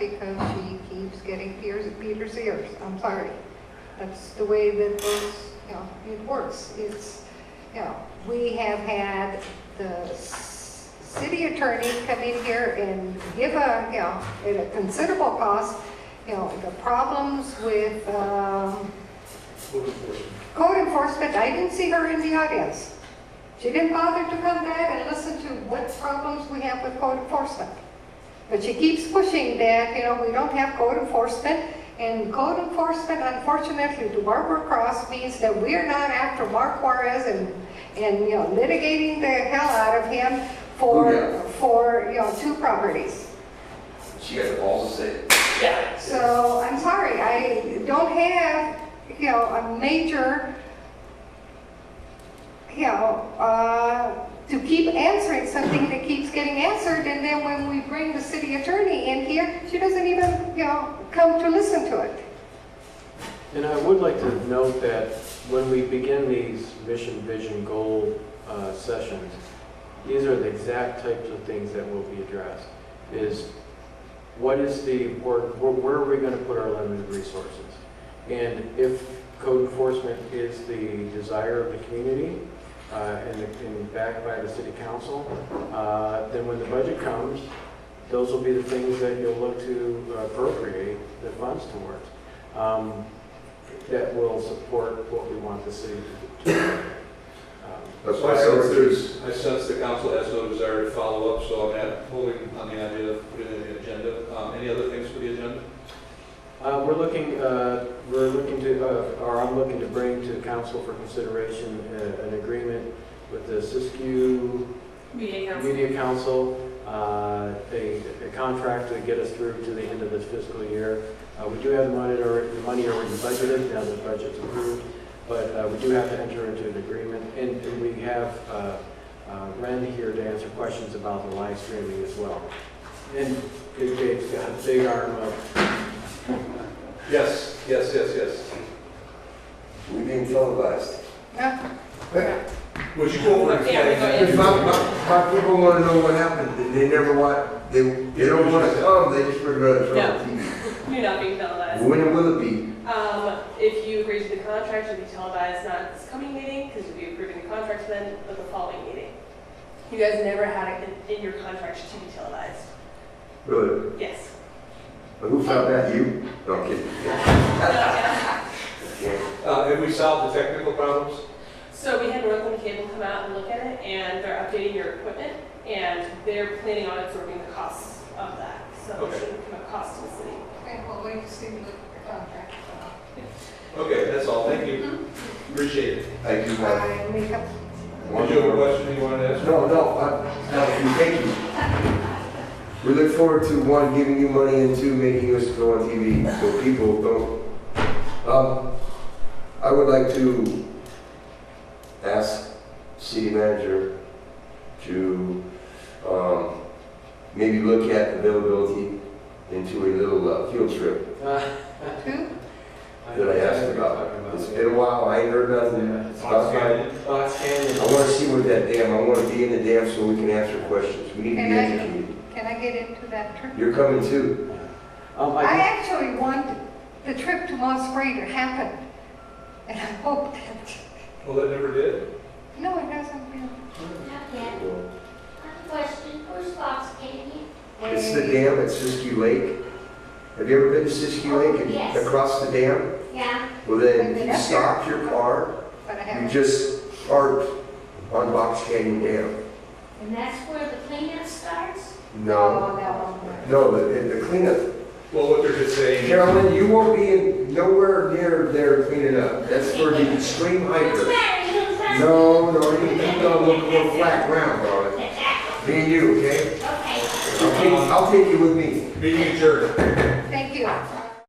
because she keeps getting Peter's, Peter's ears. I'm sorry. That's the way that those, you know, it works. It's, you know, we have had the s- city attorney come in here and give a, you know, at a considerable cost, you know, the problems with, um, Code enforcement, I didn't see her in the audience. She didn't bother to come back and listen to what problems we have with code enforcement. But she keeps pushing that, you know, we don't have code enforcement. And code enforcement, unfortunately, to Barbara Cross means that we're not after Mark Juarez and, and, you know, litigating the hell out of him Oh, for, for, you know, two properties. She got the balls to say it. Yeah. So I'm sorry, I don't have, you know, a major, you know, uh, to keep answering something that keeps getting answered, and then when we bring the city attorney in here, she doesn't even, you know, come to listen to it. And I would like to note that when we begin these mission, vision, goal uh, sessions, these are the exact types of things that will be addressed, is what is the, or where where are we going to put our limited resources? And if code enforcement is the desire of the community uh, and and backed by the city council, uh, then when the budget comes, those will be the things that you'll look to appropriate the funds towards. Um, that will support what we want the city to do. Um, That's why I sense there's, I sense the council has no desire to follow up, so I'm at- holding on the idea of putting it in the agenda. Um, Any other things for the agenda? uh, We're looking, uh, we're looking to, uh, or I'm looking to bring to council for consideration uh, an agreement with the Siskiyou Meeting house. Media Council, uh, a a contract to get us through to the end of this fiscal year. Uh, We do have the money already, the money already budgeted, now the budget's approved, but uh, we do have to enter into an agreement. And and we have uh, uh, Ren here to answer questions about the live streaming as well. And Dave's got a big arm up. Yes, yes, yes, yes. We being televised. Yeah. Would you go over Yeah, we go and ahead. if If my, my, my people wanna know what happened, they- they never want, they, they don't wanna come, they just bring it up on TV. You're not being televised. When will it be? Um, if you agree to the contract, you'll be televised not this coming meeting, because you'll be approving the contract then, but the following meeting. You guys never had it in in your contract to be televised. Really? Yes. But who found that? You? No, I'm kidding. Uh, Have we solved the technical problems? So we had Northland Cable come out and look at it, and they're updating your equipment, and they're planning on absorbing the costs of that. So it Okay. shouldn't come at cost to the city. Okay, well, wait to see what the contract uh, is about. Okay, that's all, thank you. Mm-hmm. Appreciate it. I do have I make up, one Did you have a more. question you wanted to ask? No, no, I, no, thank you. We look forward to, one, giving you money, and two, making us go on TV, so people don't. Um, I would like to ask city manager to, um, maybe look at availability into a little uh, field trip Uh, two, that I asked about. It's been a while, I ain't heard nothing. Yeah. It's about time. Fox Canyon. I wanna see what that dam, I wanna be in the dam so we can answer questions. We need to be And I- educated. can I get into that trip? You're coming too. Um, I I, actually want the trip to Moss Spray to happen, and I hope that, Well, that never did. no, it doesn't really. Not yet. I have a question. Who's Fox Canyon? It's the dam at Siskiyou Lake. Have you ever been to Siskiyou Lake and Yes. across the dam? Yeah. Well, then you stop your car, But I you haven't. just park on Box Canyon Dam. And that's where the cleanup starts? No, Oh, that no, the, the cleanup. Well, what they're just saying, is- Carolyn, you won't be in nowhere near there cleaning up. That's for the extreme What's the hiker. matter? You don't find- No, no, you, you gonna look more flat ground on it. Me and you, okay? Okay. Okay, I'll take you with me. meeting adjourned.